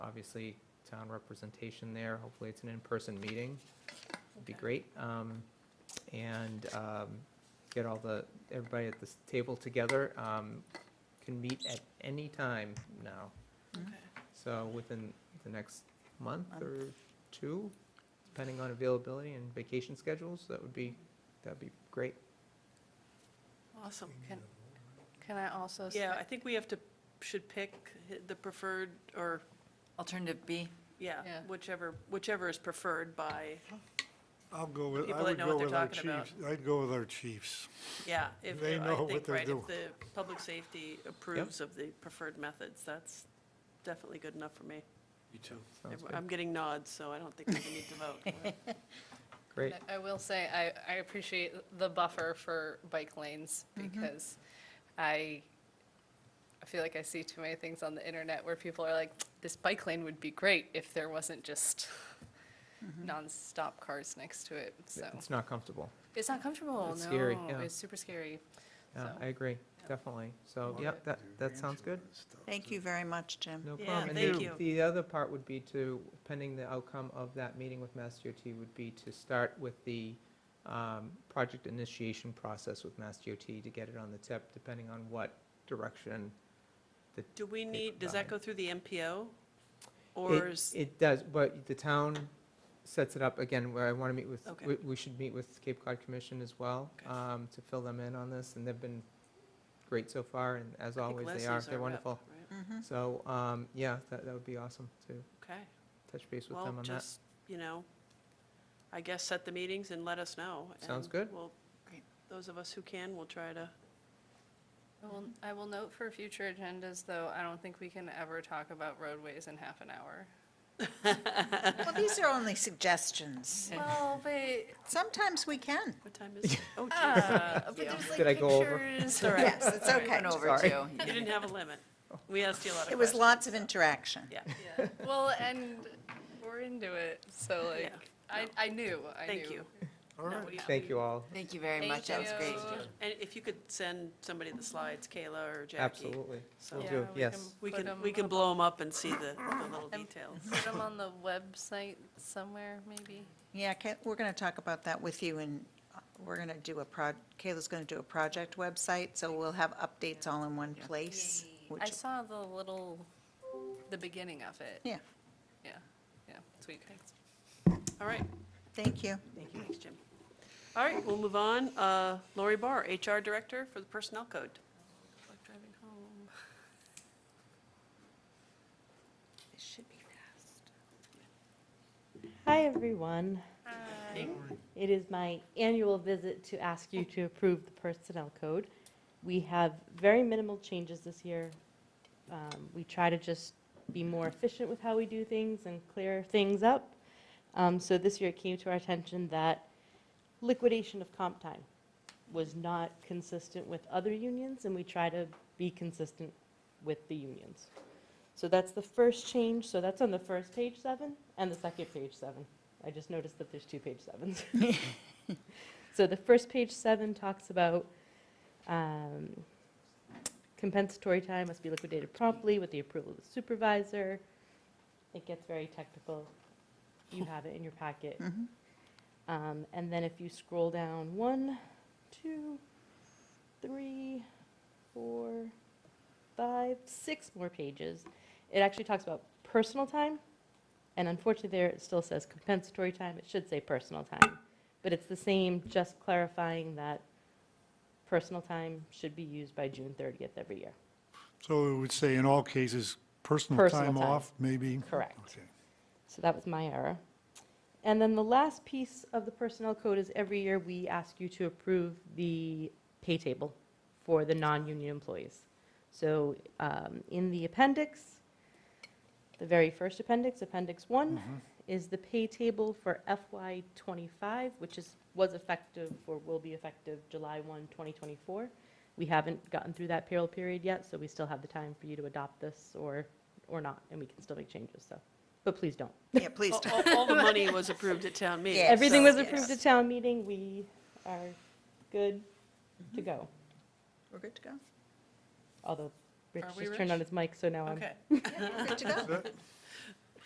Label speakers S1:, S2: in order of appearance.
S1: obviously town representation there. Hopefully, it's an in-person meeting. It'd be great. Um, And um, get all the, everybody at this table together. Um, Can meet at any time now. So within the next month
S2: Month.
S1: or two, depending on availability and vacation schedules, that would be, that'd be great.
S2: Awesome.
S3: Can-
S4: Can I also? s-
S3: Yeah, I think we have to, should pick the preferred, or,
S2: Alternative B,
S3: yeah,
S4: Yeah.
S3: whichever, whichever is preferred by,
S5: I'll go with, I
S3: People that
S5: would
S3: know what
S5: go
S3: they're
S5: with our
S3: talking about.
S5: chiefs. I'd go with our chiefs.
S3: yeah. if-
S5: They
S3: I
S5: know what
S3: think,
S5: they're
S3: right,
S5: doing.
S3: If the public safety approves of the preferred methods, that's definitely good enough for me.
S6: You too.
S1: Sounds good.
S3: I'm getting nods, so I don't think we need to vote.
S1: Great.
S4: I will say, I, I appreciate the buffer for bike lanes
S1: Mm-hmm.
S4: because I, I feel like I see too many things on the internet where people are like, this bike lane would be great if there wasn't just nonstop cars next to it, so.
S1: Mm-hmm. It's not comfortable.
S4: It's not comfortable,
S1: It's scary,
S4: no,
S1: yeah.
S4: it's super scary.
S1: Yeah,
S4: So-
S1: I agree, definitely. So, yeah, that, that sounds good.
S2: thank you very much, Jim.
S1: No
S3: Yeah,
S1: problem. And
S3: thank
S1: the-
S3: you.
S1: The other part would be to, pending the outcome of that meeting with Mass DOT, would be to start with the um, project initiation process with Mass DOT to get it on the tip, depending on what direction
S3: Do we need, does that go through the MPO?
S1: It-
S3: Or is,
S1: It does, but the town sets it up, again, where I want to meet with,
S3: Okay.
S1: we- we should meet with Cape Cod Commission as well,
S3: Okay.
S1: um, to fill them in on this, and they've been great so far, and as
S3: I think
S1: always, they
S3: Leslie's
S1: are,
S3: our
S1: they're
S3: rep,
S1: wonderful.
S3: right?
S2: Mhm.
S1: So, um, yeah, that, that would be awesome to
S3: Okay,
S1: touch base with
S3: well,
S1: them on that.
S3: just, you know, I guess set the meetings and let us know.
S1: Sounds
S3: and
S1: good.
S3: we'll-
S2: Great.
S3: Those of us who can, will try to
S4: I will, I will note for future agendas, though, I don't think we can ever talk about roadways in half an hour.
S2: Well, these are only suggestions.
S4: Well, but,
S2: Sometimes we can.
S3: What time is it? Oh, geez.
S4: uh, but there's like
S1: Did I go over?
S4: pictures.
S3: all right.
S2: Yes, it's okay.
S1: Sorry.
S3: You didn't have a limit.
S1: Oh.
S3: We asked you a lot of
S2: It was
S3: questions.
S2: lots of interaction.
S3: Yeah.
S4: Yeah. Well, and we're into it, so like,
S3: Yeah.
S4: I, I knew, I knew.
S3: Thank you.
S5: All right.
S1: Thank you all,
S7: Thank you very much, that
S4: Thank
S7: was great.
S4: you.
S3: And if you could send somebody the slides, Kayla or Jackie.
S1: absolutely,
S3: So
S1: will
S4: Yeah,
S1: do,
S4: we
S1: yes.
S3: We
S4: Put
S3: can,
S4: 'em
S3: we can
S4: up
S3: blow them up and see the the little details.
S4: Put them on the website somewhere, maybe?
S2: Yeah, Ca- we're going to talk about that with you, and uh, we're going to do a proj, Kayla's going to do a project website, so we'll have updates all in one place.
S4: I
S2: which-
S4: saw the little, the beginning of it.
S2: Yeah,
S4: Yeah, yeah, sweet, thanks.
S3: All right.
S2: thank you.
S3: Thanks, Jim. All right, we'll move on. Uh, Lori Barr, HR Director for the Personnel Code. Like driving home.
S2: This should be fast.
S8: Hi, everyone.
S3: Hey.
S8: It is my annual visit to ask you to approve the personnel code. We have very minimal changes this year. Um, We try to just be more efficient with how we do things and clear things up. Um, So this year it came to our attention that liquidation of comp time was not consistent with other unions, and we try to be consistent with the unions. So that's the first change, so that's on the first page seven and the second page seven. I just noticed that there's two page sevens. So the first page seven talks about um, compensatory time must be liquidated promptly with the approval of the supervisor. It gets very technical. You have it in your packet.
S2: Mhm.
S8: Um, And then if you scroll down, one, two, three, four, five, six more pages, it actually talks about personal time. And unfortunately, there it still says compensatory time. It should say personal time. But it's the same, just clarifying that personal time should be used by June 30th every year.
S5: So it would say in all cases, personal
S8: Personal
S5: time
S8: time.
S5: off, maybe?
S8: Correct.
S5: Okay.
S8: So that was my error. And then the last piece of the personnel code is every year we ask you to approve the pay table for the non-union employees. So um, in the appendix, the very first appendix, Appendix 1,
S5: Mm-hmm.
S8: is the pay table for FY '25, which is, was effective or will be effective July 1, 2024. We haven't gotten through that payroll period yet, so we still have the time for you to adopt this or, or not, and we can still make changes, so, but please don't.
S2: Yeah, Oh. please
S3: All-
S2: do.
S3: All all the money was approved at town meeting.
S2: Yeah,
S8: Everything was
S2: so-
S8: approved at town meeting, we are good to go.
S2: We're good to go?
S8: Although Rich
S3: Are we
S8: just turned on his mic, so now I'm,
S3: Okay.
S2: Good to go.
S5: Is that-